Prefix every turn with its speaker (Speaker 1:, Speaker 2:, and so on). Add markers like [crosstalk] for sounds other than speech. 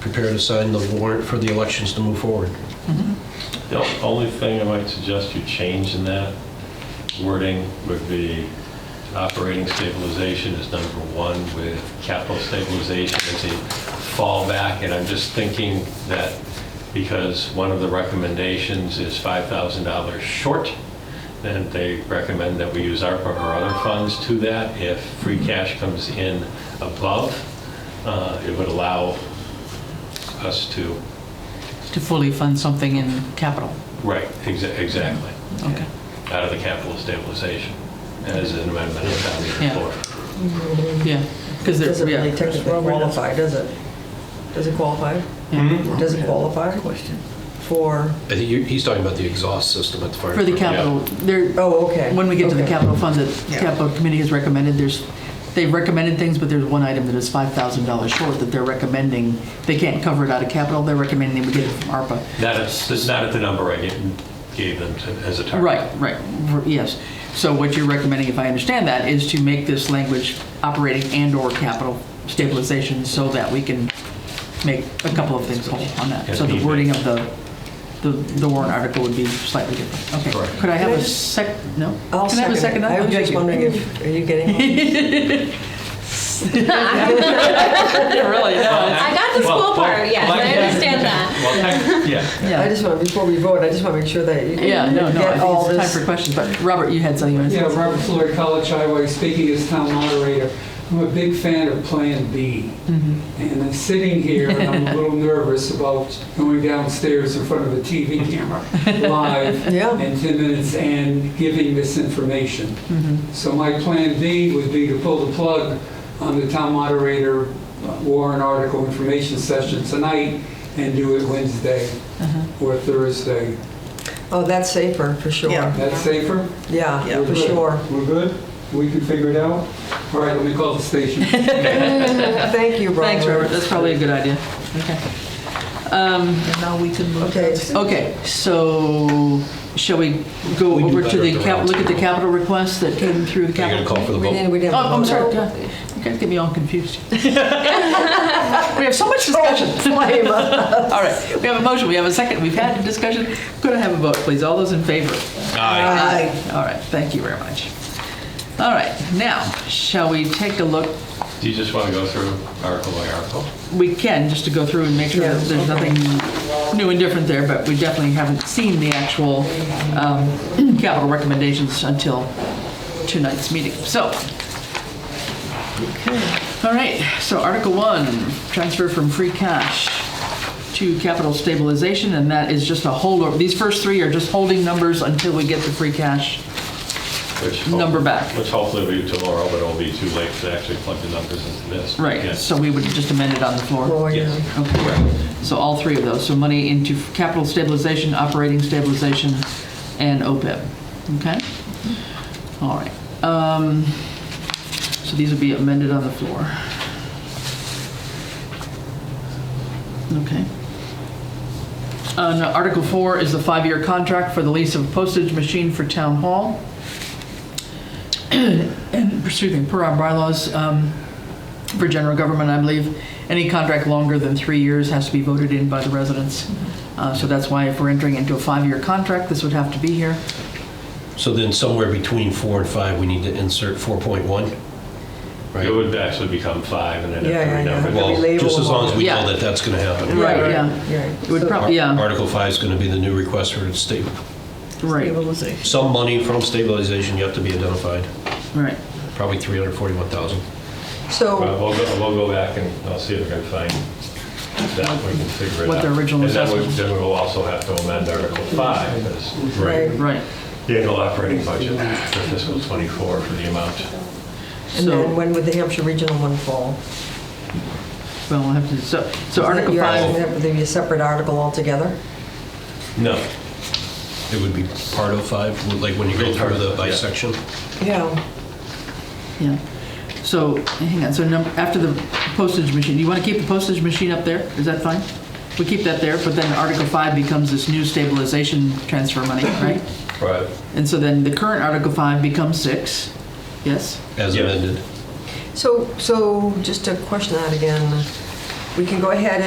Speaker 1: prepare to sign the warrant for the elections to move forward.
Speaker 2: The only thing I might suggest you change in that wording would be operating stabilization is number one with capital stabilization as a fallback. And I'm just thinking that because one of the recommendations is $5,000 short, then they recommend that we use ARPA or other funds to that. If free cash comes in above, uh, it would allow us to,
Speaker 3: to fully fund something in capital.
Speaker 2: right, exa- exactly.
Speaker 3: Okay.
Speaker 2: out of the capital stabilization as an amendment of town meeting
Speaker 3: Yeah.
Speaker 2: floor.
Speaker 3: Yeah, because there's,
Speaker 4: Doesn't really
Speaker 3: yeah,
Speaker 4: technically qualify, does it? Does it qualify? Does it qualify? Question. For,
Speaker 1: I think you- he's talking about the exhaust system at the fire.
Speaker 3: for the
Speaker 1: department.
Speaker 3: capital, there,
Speaker 4: oh, okay.
Speaker 3: when we get to the
Speaker 4: Okay.
Speaker 3: capital fund that
Speaker 4: Yeah.
Speaker 3: capital committee has recommended, there's, they've recommended things, but there's one item that is $5,000 short that they're recommending, they can't cover it out of capital, they're recommending we get it from ARPA.
Speaker 2: Not at, that's not at the number I gave- gave them to- as a target.
Speaker 3: Right, right, r- yes. So what you're recommending, if I understand that, is to make this language operating and/or capital stabilization so that we can make a couple of things whole on that. So the wording of the, the the warrant article would be slightly different. Okay,
Speaker 2: Correct.
Speaker 3: could I have
Speaker 4: Can I
Speaker 3: a
Speaker 4: just-
Speaker 3: sec, no?
Speaker 4: I'll
Speaker 3: Can I have a second?
Speaker 4: it. I
Speaker 3: Oh,
Speaker 4: was
Speaker 3: thank
Speaker 4: just
Speaker 3: you. [laughs]
Speaker 4: wondering if, are you getting one?
Speaker 3: Yeah, Really, no.
Speaker 5: I got the
Speaker 2: Well,
Speaker 5: school
Speaker 2: well,
Speaker 5: part, yes,
Speaker 2: well,
Speaker 5: I
Speaker 2: yeah.
Speaker 5: understand that.
Speaker 2: Well, tec- yeah.
Speaker 4: I
Speaker 3: Yeah,
Speaker 4: just want, before we vote, I just want to make sure that you
Speaker 3: Yeah, no, no,
Speaker 4: get
Speaker 3: I
Speaker 4: all
Speaker 3: think it's
Speaker 4: this.
Speaker 3: time for questions, but Robert, you had something. you wanted to
Speaker 6: Yeah,
Speaker 3: say?
Speaker 6: Robert Floyd, College Highway, speaking as town moderator. I'm a big fan of Plan B. And I'm sitting here and I'm a little nervous about going downstairs in front of a TV camera live
Speaker 4: Yeah.
Speaker 6: in 10 minutes and giving this information.
Speaker 3: Mm-hmm,
Speaker 6: So my Plan B would be to pull the plug on the town moderator uh, warrant article information session tonight and do it Wednesday
Speaker 3: mm-hmm.
Speaker 6: or Thursday.
Speaker 4: Oh, that's safer, for sure.
Speaker 7: Yeah.
Speaker 6: That's safer?
Speaker 4: Yeah,
Speaker 6: We're
Speaker 4: for
Speaker 6: good.
Speaker 4: sure.
Speaker 3: [laughs]
Speaker 6: We're good? We can figure it out? All right, let me call the station.
Speaker 4: Thank you, Robert.
Speaker 3: Thanks, Robert, that's probably a good idea. Okay. Um,
Speaker 7: And now we can move
Speaker 4: Okay.
Speaker 7: to
Speaker 3: Okay, so shall we go
Speaker 1: We do
Speaker 3: over to
Speaker 1: better
Speaker 3: the
Speaker 1: at the
Speaker 3: cap,
Speaker 1: round
Speaker 3: look at the
Speaker 1: table.
Speaker 3: capital request that came through the
Speaker 1: Are you going to
Speaker 3: capital?
Speaker 1: call for the
Speaker 4: We
Speaker 1: vote?
Speaker 4: didn't, we
Speaker 3: Oh,
Speaker 4: didn't.
Speaker 3: I'm sorry, God, you guys get me all confused. [laughs] We have so much
Speaker 4: [laughs]
Speaker 3: discussion. All right, we have a motion, we have a second, we've had a discussion. Could I have a vote, please? All those in favor? Aye. All right, thank you very much. All right, now, shall we take a look?
Speaker 2: Do you just want to go through article by article?
Speaker 3: We can, just to go through and make sure that there's nothing new and different there, but we definitely haven't seen the actual um, [clears throat] capital recommendations until tonight's meeting. So, all right, so Article 1, transfer from free cash to capital stabilization, and that is just a holdover. These first three are just holding numbers until we get the free cash.
Speaker 2: Which hope-
Speaker 3: Number back.
Speaker 2: Which hopefully will be tomorrow, but it'll be too late to actually plug the numbers into this.
Speaker 3: Right,
Speaker 2: Yes.
Speaker 3: so we would just amend it on the floor.
Speaker 4: Oh, yeah.
Speaker 2: Yes.
Speaker 3: Okay, so all three of those, so money into capital stabilization, operating stabilization, and OPEB, okay? All right, um, so these will be amended on the floor. Okay. Uh, now, Article four is the five-year contract for the lease of a postage machine for town hall. [clears throat] And, excuse me, per our bylaws, um, for general government, I believe, any contract longer than three years has to be voted in by the residents. Uh, So that's why if we're entering into a five-year contract, this would have to be here.
Speaker 1: So then somewhere between four and five, we need to insert 4.1, right?
Speaker 2: It would actually become five and then
Speaker 4: Yeah, yeah,
Speaker 2: every
Speaker 4: yeah.
Speaker 2: number.
Speaker 1: Well,
Speaker 4: Relabel
Speaker 1: just as
Speaker 4: them
Speaker 1: long as we
Speaker 3: all.
Speaker 1: know that that's going to happen.
Speaker 3: Right, yeah.
Speaker 4: Right.
Speaker 3: It would
Speaker 4: So-
Speaker 1: Ar-
Speaker 3: probably, yeah,
Speaker 1: Article 5 is going to be the new request for sta-
Speaker 3: right,
Speaker 7: stabilization.
Speaker 1: some money from stabilization yet to be identified,
Speaker 3: right.
Speaker 1: probably 341,000.
Speaker 4: So,
Speaker 2: Well, We'll go, we'll go back and I'll see if I can find that, we can figure it out.
Speaker 3: What the original
Speaker 2: And then we-
Speaker 3: assessment.
Speaker 2: Then we'll also have to amend Article 5, as
Speaker 4: right,
Speaker 3: Right.
Speaker 2: the annual operating budget for fiscal '24 for the amount.
Speaker 4: and then
Speaker 3: So,
Speaker 4: when would the Hampshire Regional one fall?
Speaker 3: well, we'll have to, so, so
Speaker 4: Is that
Speaker 3: Article
Speaker 4: your-
Speaker 3: five,
Speaker 4: Would there be a separate article altogether?
Speaker 2: No,
Speaker 1: It would be part of 5, like when you go through the bisection.
Speaker 4: Yeah.
Speaker 3: yeah. So, hang on, so num after the postage machine, do you want to keep the postage machine up there? Is that fine? We keep that there, but then Article five becomes this new stabilization transfer money, right?
Speaker 2: right,
Speaker 3: And so then the current Article five becomes six, yes?
Speaker 1: As
Speaker 2: Yeah.
Speaker 1: amended.
Speaker 4: So, so just to question that again, we can go ahead